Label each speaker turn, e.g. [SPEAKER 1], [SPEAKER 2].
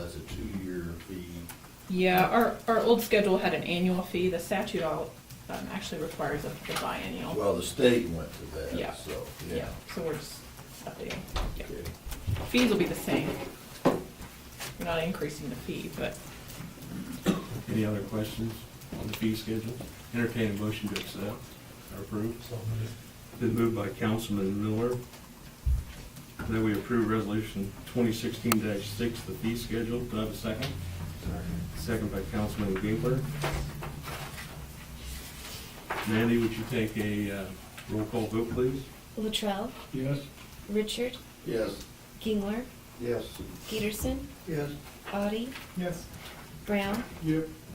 [SPEAKER 1] Yeah, our, our old schedule had an annual fee. The statute all, um, actually requires a a biennial.
[SPEAKER 2] Well, the state went to
[SPEAKER 1] Oh. Yeah.
[SPEAKER 2] that, so, yeah.
[SPEAKER 1] Yeah, so we're just updating. Yeah.
[SPEAKER 2] Okay.
[SPEAKER 1] Fees will be the same. We're not increasing the fee, but
[SPEAKER 3] Any other questions on the fee schedule? Entertain a motion to accept or approve. Been moved by Councilman Miller. That we approve resolution twenty sixteen six, the fee schedule. Do I have a second? Second by Councilman Ginkler. Mandy, would you take a uh, roll call vote, please?
[SPEAKER 4] Latrell,
[SPEAKER 5] Yes.
[SPEAKER 4] Richard,
[SPEAKER 2] Yes.
[SPEAKER 4] Gingler,
[SPEAKER 2] Yes.
[SPEAKER 4] Peterson,
[SPEAKER 5] Yes.
[SPEAKER 4] Audi,
[SPEAKER 5] Yes.
[SPEAKER 4] Brown,
[SPEAKER 5] Yep.